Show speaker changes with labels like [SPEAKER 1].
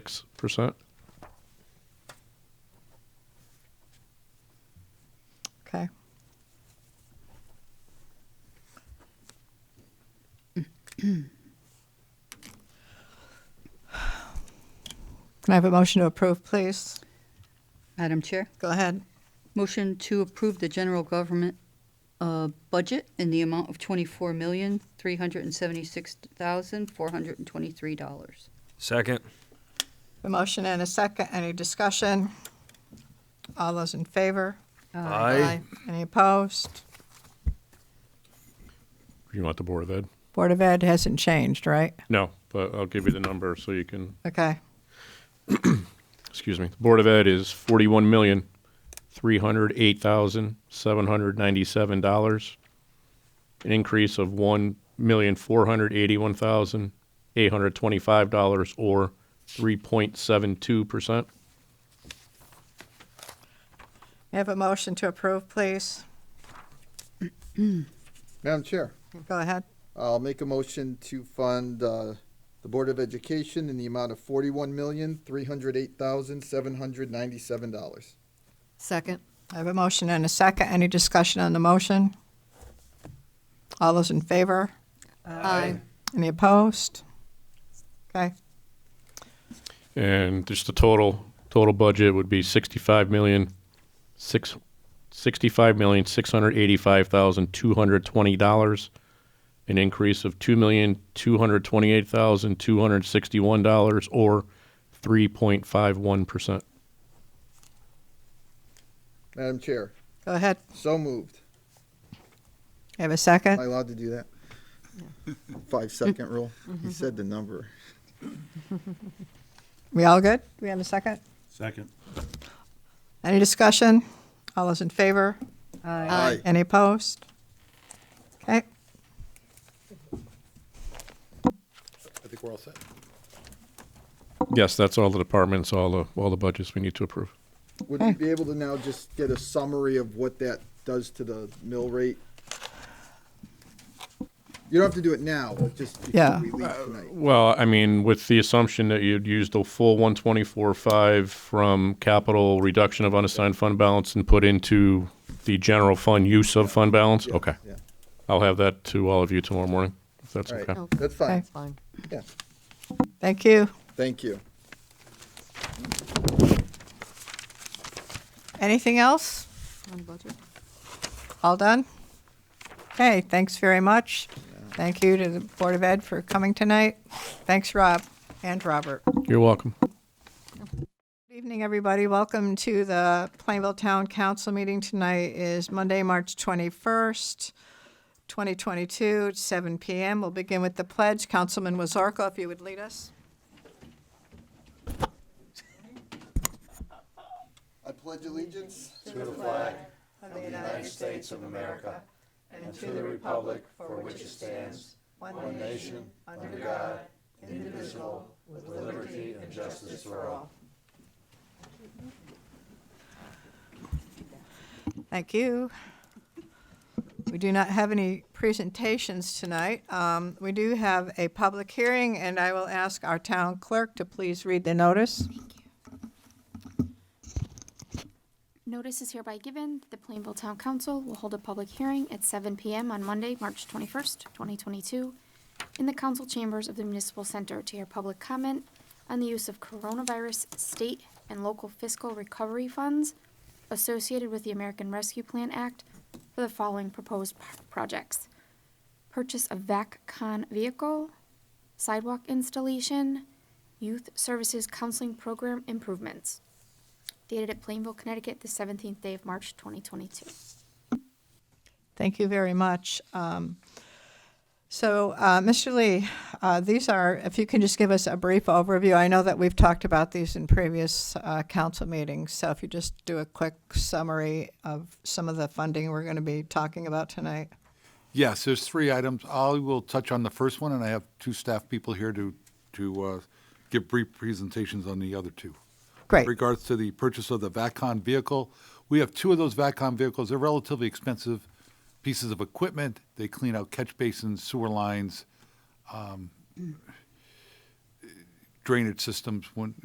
[SPEAKER 1] percent.
[SPEAKER 2] Okay. Can I have a motion to approve, please?
[SPEAKER 3] Madam Chair,
[SPEAKER 2] Go ahead.
[SPEAKER 3] motion to approve the general government uh, budget in the amount of $24,376,423.
[SPEAKER 4] Second.
[SPEAKER 2] A motion and a second. Any discussion? All those in favor? Any opposed?
[SPEAKER 1] You want the Board of Ed?
[SPEAKER 2] Board of Ed hasn't changed, right?
[SPEAKER 1] No, but I'll give you the number so you can,
[SPEAKER 2] Okay.
[SPEAKER 1] excuse me. The Board of Ed is forty-one million, three hundred eight thousand, seven hundred ninety-seven dollars. An increase of one million, four hundred eighty-one thousand, eight hundred twenty-five dollars or three point seven two percent.
[SPEAKER 2] May I have a motion to approve, please?
[SPEAKER 5] Madam Chair,
[SPEAKER 2] Go ahead.
[SPEAKER 5] I'll make a motion to fund uh, the Board of Education in the amount of forty-one million, three hundred eight thousand, seven hundred ninety-seven dollars.
[SPEAKER 6] Second.
[SPEAKER 2] I have a motion and a second. Any discussion on the motion? All those in favor?
[SPEAKER 6] Aye.
[SPEAKER 2] Any opposed? Okay,
[SPEAKER 1] And just the total, total budget would be sixty-five million, six, sixty-five million, six hundred eighty-five thousand, two hundred twenty dollars. An increase of two million, two hundred twenty-eight thousand, two hundred sixty-one dollars or three point five one percent.
[SPEAKER 5] Madam Chair,
[SPEAKER 2] go ahead.
[SPEAKER 5] so moved.
[SPEAKER 2] You have a
[SPEAKER 5] Am I
[SPEAKER 2] second?
[SPEAKER 5] allowed to do that? Five-second rule. He said the number.
[SPEAKER 2] We all good? We have a second?
[SPEAKER 7] Second.
[SPEAKER 2] Any discussion? All those in favor?
[SPEAKER 5] Aye.
[SPEAKER 2] Any opposed? Okay,
[SPEAKER 8] I think we're all set.
[SPEAKER 1] Yes, that's all the departments, all the, all the budgets we need to approve.
[SPEAKER 5] Would we be able to now just get a summary of what that does to the mill rate? You don't have to do it now, just before
[SPEAKER 2] Yeah.
[SPEAKER 5] we leave tonight.
[SPEAKER 1] Well, I mean, with the assumption that you'd use the full one twenty-four five from capital reduction of unassigned fund balance and put into the general fund use of fund balance? Okay.
[SPEAKER 5] Yeah,
[SPEAKER 1] I'll have that to all of you tomorrow morning, if that's
[SPEAKER 5] all
[SPEAKER 1] Uh, okay.
[SPEAKER 5] right, that's fine,
[SPEAKER 2] Okay.
[SPEAKER 6] Fine.
[SPEAKER 5] yeah,
[SPEAKER 2] thank you.
[SPEAKER 5] thank you.
[SPEAKER 2] Anything else?
[SPEAKER 6] On the budget.
[SPEAKER 2] All done? Okay, thanks very much. Thank you to the Board of Ed for coming tonight. Thanks, Rob and Robert.
[SPEAKER 1] You're welcome.
[SPEAKER 2] Good evening, everybody. Welcome to the Plainville Town Council meeting. Tonight is Monday, March 21st, 2022, at 7 PM. We'll begin with the pledge. Councilman Wazorko, if you would lead us.
[SPEAKER 5] I pledge allegiance.
[SPEAKER 2] Thank you. We do not have any presentations tonight. Um, We do have a public hearing, and I will ask our town clerk to please read the notice.
[SPEAKER 9] Notice is hereby given that the Plainville Town Council will hold a public hearing at 7 PM on Monday, March 21st, 2022, in the council chambers of the Municipal Center to hear public comment on the use of coronavirus state and local fiscal recovery funds associated with the American Rescue Plan Act for the following proposed p- projects. Purchase of VACCON vehicle, sidewalk installation, youth services counseling program improvements dated at Plainville, Connecticut, the 17th day of March, 2022.
[SPEAKER 2] Thank you very much. Um, So, uh, Mr. Lee, uh, these are, if you can just give us a brief overview. I know that we've talked about these in previous uh, council meetings, so if you just do a quick summary of some of the funding we're going to be talking about tonight.
[SPEAKER 8] Yes, there's three items. I will touch on the first one, and I have two staff people here to, to uh, give brief presentations on the other two.
[SPEAKER 2] Great.
[SPEAKER 8] Regards to the purchase of the VACCON vehicle, we have two of those VACCON vehicles. They're relatively expensive pieces of equipment. They clean out catch basins, sewer lines, um, drainage systems when,